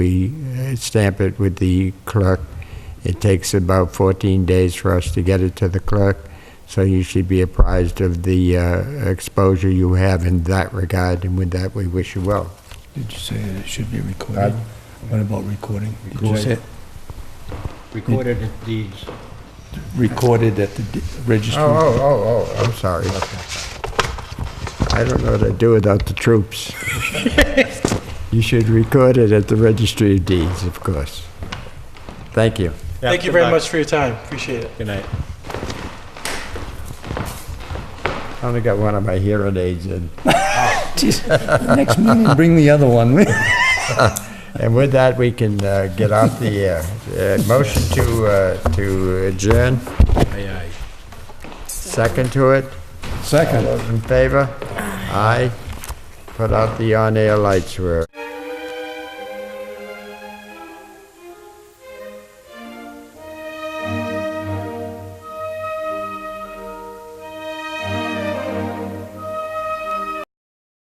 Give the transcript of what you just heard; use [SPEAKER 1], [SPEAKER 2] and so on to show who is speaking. [SPEAKER 1] We uh, stamp it with the clerk. It takes about 14 days for us to get it to the clerk, so you should be apprised of the uh, exposure you have in that regard, and with that, we wish you well.
[SPEAKER 2] Did you say it should be recorded?
[SPEAKER 1] Pardon?
[SPEAKER 2] What about recording? Did you
[SPEAKER 1] Record.
[SPEAKER 2] say
[SPEAKER 3] recorded as deeds.
[SPEAKER 2] recorded at the d- registry?
[SPEAKER 1] Oh, oh, oh, oh, I'm sorry. I don't know what I'd do without the troops. You should record it at the Registry of Deeds, of course. Thank you.
[SPEAKER 4] Thank you very much for your time. Appreciate it.
[SPEAKER 3] Good night.
[SPEAKER 1] I only got one of my hearing aids in.
[SPEAKER 2] Jeez, Next meeting, bring the other one.
[SPEAKER 1] And with that, we can uh, get off the air. Uh, Motion to uh, to adjourn,
[SPEAKER 3] Aye, aye.
[SPEAKER 1] second to it.
[SPEAKER 2] Second.
[SPEAKER 1] Those in favor? Aye. Put out the on-air lights, we're...